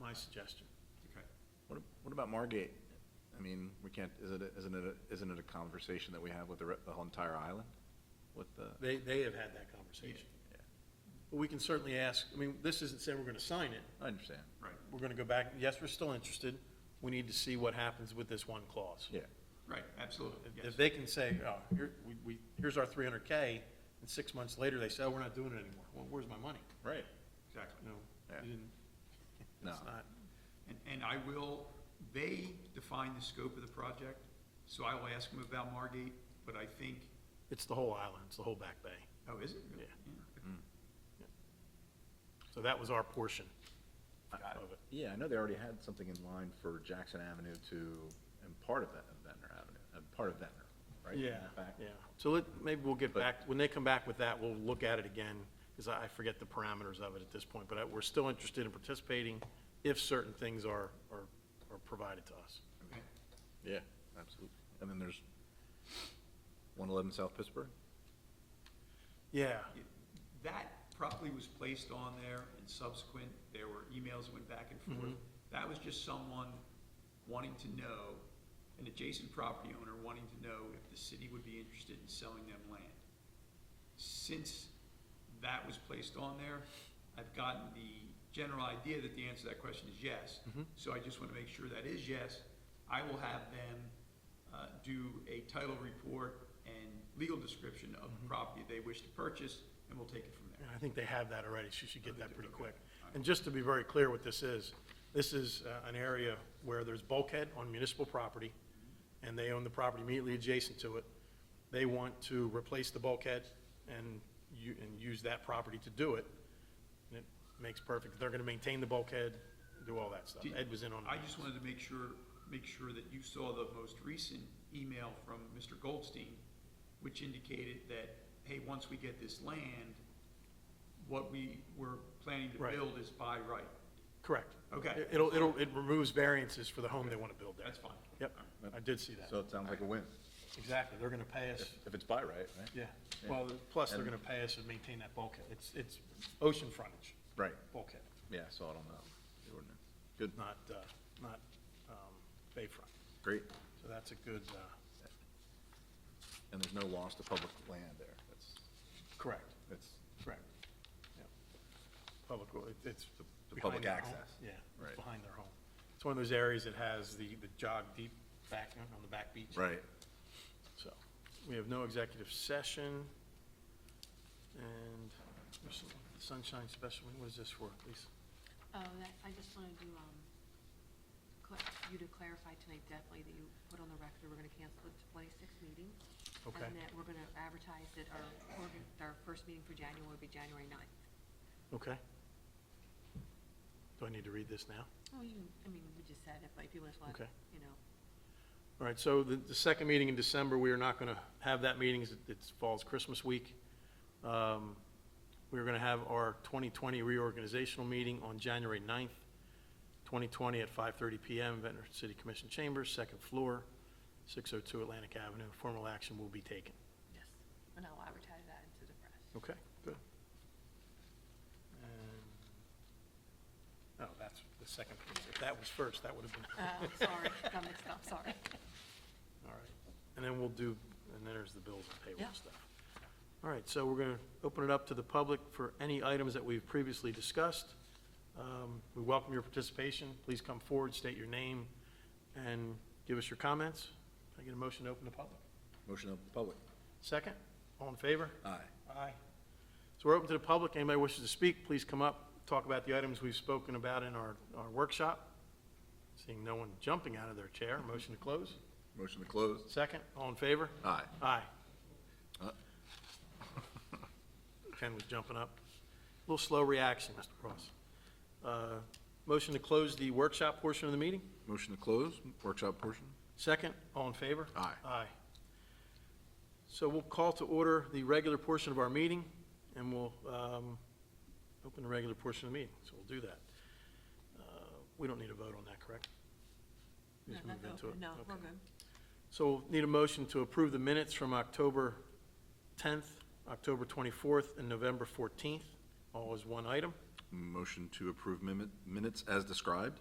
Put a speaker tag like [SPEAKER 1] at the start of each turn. [SPEAKER 1] my suggestion.
[SPEAKER 2] Okay.
[SPEAKER 3] What, what about Margate? I mean, we can't, is it, a- isn't it, a- isn't it a conversation that we have with the, re- the whole entire island? With the,
[SPEAKER 1] They, they have had that conversation.
[SPEAKER 3] Yeah.
[SPEAKER 1] But we can certainly ask, I mean, this isn't saying we're gonna sign it,
[SPEAKER 3] I understand,
[SPEAKER 2] Right,
[SPEAKER 1] we're gonna go back, yes, we're still interested, we need to see what happens with this one clause.
[SPEAKER 3] yeah.
[SPEAKER 2] right, absolutely,
[SPEAKER 1] If-
[SPEAKER 2] yes.
[SPEAKER 1] If they can say, oh, here, we, we, here's our three hundred K, and six months later, they say, oh, we're not doing it anymore, well, where's my money?
[SPEAKER 3] Right.
[SPEAKER 2] Exactly.
[SPEAKER 1] You know,
[SPEAKER 3] Yeah.
[SPEAKER 1] you didn't-
[SPEAKER 3] No.
[SPEAKER 1] it's not,
[SPEAKER 2] And, and I will, they define the scope of the project, so I will ask them about Margate, but I think,
[SPEAKER 1] it's the whole island, it's the whole Back Bay.
[SPEAKER 2] oh, is it? really?
[SPEAKER 1] Yeah.
[SPEAKER 2] okay.
[SPEAKER 1] So that was our portion
[SPEAKER 3] Got
[SPEAKER 1] of it.
[SPEAKER 3] Yeah, I know they already had something in line for Jackson Avenue to, and part of that, uh, Ventnor Avenue, and part of Ventnor, right? Back-
[SPEAKER 1] Yeah, so let, maybe we'll get
[SPEAKER 3] But-
[SPEAKER 1] back, when they come back with that, we'll look at it again, because I I forget the parameters of it at this point, but I- we're still interested in participating if certain things are, are, are provided to us.
[SPEAKER 2] Okay.
[SPEAKER 3] Yeah, absolutely. And then there's one eleven South Pittsburgh?
[SPEAKER 1] Yeah,
[SPEAKER 2] Yeah, That probably was placed on there and subsequent, there were emails that went back and forth.
[SPEAKER 1] Mm-hmm.
[SPEAKER 2] That was just someone wanting to know, an adjacent property owner wanting to know if the city would be interested in selling them land. Since that was placed on there, I've gotten the general idea that the answer to that question is yes. So I just want to make sure that is yes. I will have them uh, do a title report and legal description of the property they wish to purchase, and we'll take it from there.
[SPEAKER 1] and I think they have that already, so you should get
[SPEAKER 2] they
[SPEAKER 1] that
[SPEAKER 2] do,
[SPEAKER 1] pretty
[SPEAKER 2] okay.
[SPEAKER 1] quick.
[SPEAKER 2] All right.
[SPEAKER 1] And just to be very clear what this is, this is uh, an area where there's bulkhead on municipal property, and they own the property immediately adjacent to it. They want to replace the bulkhead and you, and use that property to do it. And it makes perfect, they're gonna maintain the bulkhead, do all that stuff.
[SPEAKER 2] Did-
[SPEAKER 1] Ed was in on
[SPEAKER 2] I
[SPEAKER 1] that.
[SPEAKER 2] just wanted to make sure, make sure that you saw the most recent email from Mr. Goldstein, which indicated that, hey, once we get this land, what we were planning to
[SPEAKER 1] Right.
[SPEAKER 2] build is by right.
[SPEAKER 1] Correct.
[SPEAKER 2] Okay.
[SPEAKER 1] It- It'll, it'll, it removes variances for the home they wanna build there.
[SPEAKER 2] That's fine.
[SPEAKER 1] Yep, I did see that.
[SPEAKER 3] So it sounds like a win,
[SPEAKER 1] Exactly, they're gonna pay us.
[SPEAKER 3] if it's by right, right?
[SPEAKER 1] Yeah,
[SPEAKER 3] Yeah.
[SPEAKER 1] well, plus they're
[SPEAKER 3] And-
[SPEAKER 1] gonna pay us and maintain that bulkhead. It's, it's ocean frontage
[SPEAKER 3] Right,
[SPEAKER 1] bulkhead,
[SPEAKER 3] yeah, I saw it on the, the ordinance. Good,
[SPEAKER 1] not, uh, not, um, bayfront.
[SPEAKER 3] great.
[SPEAKER 1] So that's a good, uh,
[SPEAKER 3] And there's no loss to public land there, that's,
[SPEAKER 1] correct,
[SPEAKER 3] that's,
[SPEAKER 1] correct. Yeah. Public, ro- it- it's. the-
[SPEAKER 3] The
[SPEAKER 1] behind
[SPEAKER 3] public
[SPEAKER 1] their home.
[SPEAKER 3] access.
[SPEAKER 1] Yeah, it's
[SPEAKER 3] Right.
[SPEAKER 1] behind their home. It's one of those areas that has the, the jog deep back, on the back beach.
[SPEAKER 3] right.
[SPEAKER 1] So, we have no executive session. And there's some sunshine special, what is this for, Lisa?
[SPEAKER 4] Oh, that, I just wanted to, um, cla- you to clarify tonight definitely that you put on the record we're gonna cancel the twenty-sixth meeting.
[SPEAKER 1] Okay.
[SPEAKER 4] And that we're gonna advertise that our, organ- our first meeting for January will be January ninth.
[SPEAKER 1] Okay. Do I need to read this now?
[SPEAKER 4] Well, you, I mean, we just said it, but if you just want,
[SPEAKER 1] Okay.
[SPEAKER 4] you know,
[SPEAKER 1] All right, so the, the second meeting in December, we are not going to have that meeting, it's- it falls Christmas week. Um, We're going to have our 2020 reorganizational meeting on January 9th, 2020 at 5:30 PM, Ventnor City Commission Chambers, second floor, 602 Atlantic Avenue. Formal action will be taken.
[SPEAKER 4] yes, and I'll advertise that into the press.
[SPEAKER 1] Okay, good. And- Oh, that's the second, page. if that was first, that would have been.
[SPEAKER 4] Uh, sorry, got mixed up, sorry.
[SPEAKER 1] All right, and then we'll do, and then there's the bills and payroll
[SPEAKER 4] Yeah.
[SPEAKER 1] stuff. All right, so we're going to open it up to the public for any items that we've previously discussed. Um, We welcome your participation. Please come forward, state your name, and give us your comments. Can I get a motion to open the public?
[SPEAKER 3] Motion of the public.
[SPEAKER 1] Second, all in favor?
[SPEAKER 3] Aye.
[SPEAKER 1] Aye. So we're open to the public. Anybody wishes to speak, please come up, talk about the items we've spoken about in our, our workshop. Seeing no one jumping out of their chair, motion to close.
[SPEAKER 3] Motion to close.
[SPEAKER 1] Second, all in favor?
[SPEAKER 3] Aye.
[SPEAKER 1] Aye.
[SPEAKER 3] Uh.
[SPEAKER 1] Ken was jumping up. A little slow reaction, Mr. Cross. Uh, Motion to close the workshop portion of the meeting?
[SPEAKER 3] Motion to close, workshop portion.
[SPEAKER 1] Second, all in favor?
[SPEAKER 3] Aye.
[SPEAKER 1] Aye. So we'll call to order the regular portion of our meeting, and we'll um, open the regular portion of the meeting, so we'll do that. Uh, We don't need a vote on that, correct? We just
[SPEAKER 4] No,
[SPEAKER 1] move
[SPEAKER 4] not
[SPEAKER 1] into it?
[SPEAKER 4] open. No, we're
[SPEAKER 1] Okay.
[SPEAKER 4] good.
[SPEAKER 1] So we'll need a motion to approve the minutes from October 10th, October 24th, and November 14th, all as one item.
[SPEAKER 3] Motion to approve minute- minutes as described.